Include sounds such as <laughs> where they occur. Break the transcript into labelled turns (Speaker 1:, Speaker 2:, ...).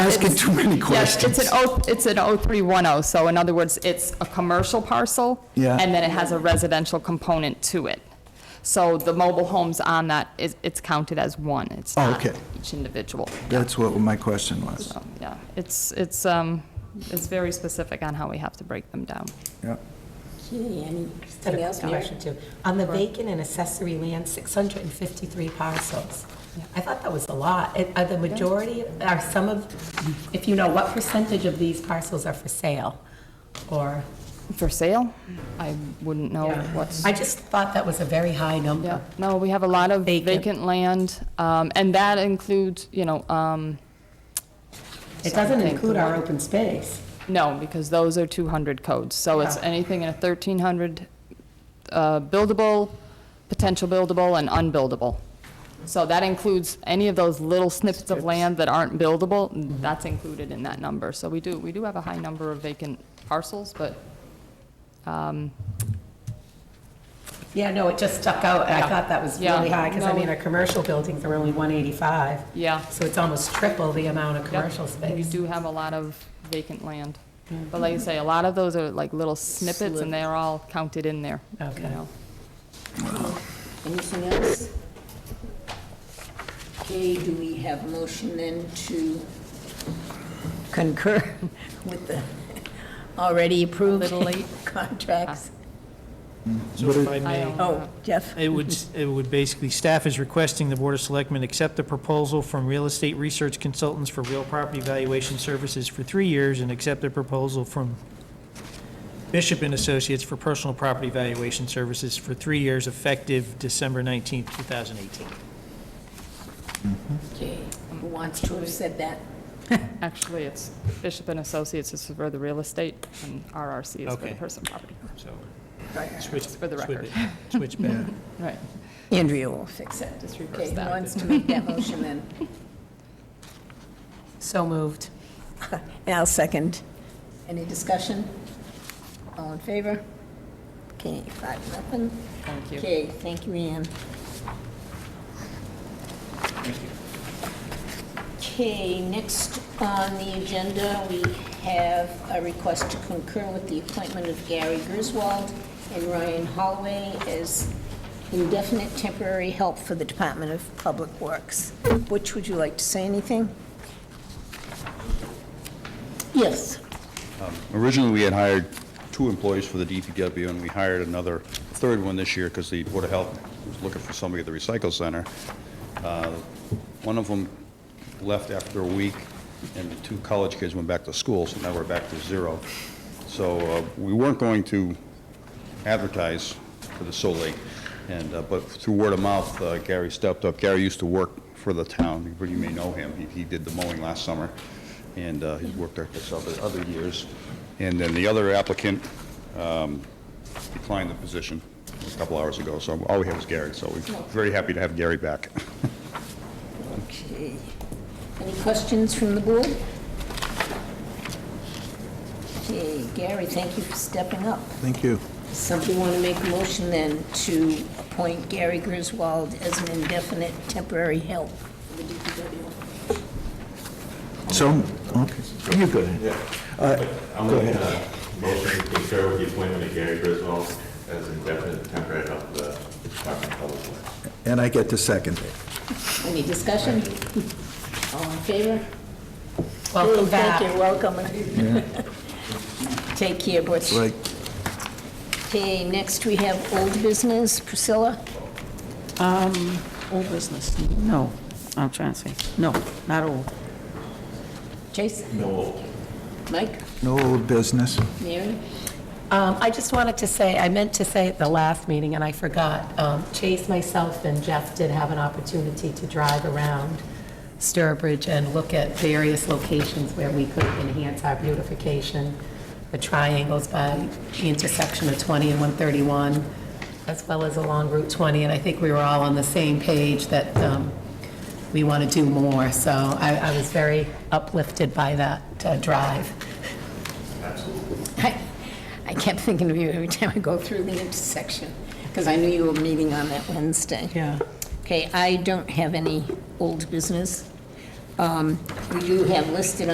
Speaker 1: asking
Speaker 2: it's-
Speaker 1: too many
Speaker 2: Yes,
Speaker 1: questions.
Speaker 2: it's an O, it's an O three one O, so in other words, it's a commercial parcel.
Speaker 1: Yeah.
Speaker 2: And then it has a residential component to it. So the mobile homes on that is, it's counted as one, it's
Speaker 1: Oh,
Speaker 2: not
Speaker 1: okay.
Speaker 2: each individual.
Speaker 1: That's what my question was.
Speaker 2: So, yeah, it's, it's, um, it's very specific on how we have to break them down.
Speaker 1: Yeah.
Speaker 3: Okay,
Speaker 4: Got
Speaker 3: anything
Speaker 4: a
Speaker 3: else, Mary?
Speaker 4: question too. On the vacant and accessory land, 653 parcels. I thought that was a lot. It- Are the majority, are some of, if you know, what percentage of these parcels are for sale? Or,
Speaker 2: For sale? I wouldn't know Oh, what's.
Speaker 4: I just thought that was a very high
Speaker 2: Yeah,
Speaker 4: number.
Speaker 2: no, we have a lot of
Speaker 4: Vacant.
Speaker 2: vacant land, um, and that includes, you know, um,
Speaker 4: It doesn't
Speaker 2: Something.
Speaker 4: include our open space.
Speaker 2: no, because those are 200 codes. So it's
Speaker 4: Yeah.
Speaker 2: anything in a 1,300 uh, buildable, potential buildable, and unbuildable. So that includes any of those little snippets of land that aren't buildable,
Speaker 4: Mm-hmm.
Speaker 2: that's included in that number. So we do, we do have a high number of vacant parcels, but um,
Speaker 4: Yeah, no, it just stuck out, and I thought that was
Speaker 2: Yeah.
Speaker 4: really high, because I
Speaker 2: No.
Speaker 4: mean, our commercial buildings are only 185.
Speaker 2: Yeah.
Speaker 4: So it's almost triple the amount of
Speaker 2: Yep,
Speaker 4: commercial
Speaker 2: You
Speaker 4: space. Mm-hmm.
Speaker 2: do have a lot of vacant land. But like you say, a lot of those are like little snippets, and they're all counted in there. you
Speaker 4: Okay.
Speaker 2: know.
Speaker 3: Anything else? Okay, do we have motion then to concur <laughs> with the already approved
Speaker 2: Little late.
Speaker 3: <laughs> contracts?
Speaker 5: So if I
Speaker 2: I
Speaker 5: may,
Speaker 2: don't know.
Speaker 3: Oh, Jeff?
Speaker 5: it would, it would basically, staff is requesting the Board of Selectmen accept the proposal from Real Estate Research Consultants for Real Property Valuation Services for three years and accept the proposal from Bishop and Associates for Personal Property Valuation Services for three years effective December 19th, 2018.
Speaker 3: Okay, who wants to have said that?
Speaker 2: Actually, it's Bishop and Associates is for the real estate, and RRC is for the
Speaker 5: Okay.
Speaker 2: personal property.
Speaker 5: So switch.
Speaker 2: For the
Speaker 5: switch
Speaker 2: record.
Speaker 5: it,
Speaker 2: <laughs>
Speaker 5: Switch back.
Speaker 2: Right.
Speaker 3: Andrea will fix it.
Speaker 2: Just reverse
Speaker 3: Okay, who
Speaker 2: that.
Speaker 3: wants to make that motion then? <laughs>
Speaker 4: So moved.
Speaker 3: I'll second. Any discussion? All in favor? Okay, five, nothing.
Speaker 2: Thank you.
Speaker 3: Okay, thank you, Ann. Okay, next on the agenda, we have a request to concur with the appointment of Gary Griswold and Ryan Holloway as indefinite temporary help for the Department of Public Works. Which would you like to say anything? Yes.
Speaker 6: Originally, we had hired two employees for the DPW, and we hired another, third one this year, because the Board of Health was looking for somebody at the recycle center. Uh, One of them left after a week, and the two college kids went back to school, so now we're back to zero. So uh, we weren't going to advertise for the solely, and, uh, but through word of mouth, uh, Gary stepped up. Gary used to work for the town, you may know him, He- he did the mowing last summer, and uh, he's worked there for other, other years. And then the other applicant um, declined the position a couple hours ago, so all we have is Gary, so we're very happy to have Gary back.
Speaker 3: Okay. Any questions from the board? Okay, Gary, thank you for stepping up.
Speaker 1: Thank you.
Speaker 3: Somebody want to make a motion then to appoint Gary Griswold as an indefinite temporary help?
Speaker 1: So, okay, Uh, you go ahead.
Speaker 7: I'm going Uh, to uh, motion to concur with the appointment of Gary Griswold as indefinite temporary help for the Department of Public Works.
Speaker 1: And I get to second it.
Speaker 3: Any discussion? <laughs> All in favor?
Speaker 4: Welcome back.
Speaker 3: Thank you, welcome. Take care, Butch.
Speaker 1: Like,
Speaker 3: Okay, next we have old business, Priscilla.
Speaker 8: Um, old business, no, I'm trying to say, no, not old.
Speaker 3: Chase? No. Mike?
Speaker 1: no old business.
Speaker 3: Mary?
Speaker 4: Um, I just wanted to say, I meant to say at the last meeting, and I forgot, um, Chase, myself, and Jeff did have an opportunity to drive around Sturbridge and look at various locations where we could enhance our beautification, the triangles by the intersection of 20 and 131, as well as along Route 20, and I think we were all on the same page that um, we want to do more, so I I was very uplifted by that uh, drive.
Speaker 3: I I kept thinking of you every time I go through the intersection, because I knew you were meeting on that Wednesday.
Speaker 8: Yeah.
Speaker 3: Okay, I don't have any old business. Um, We do have listed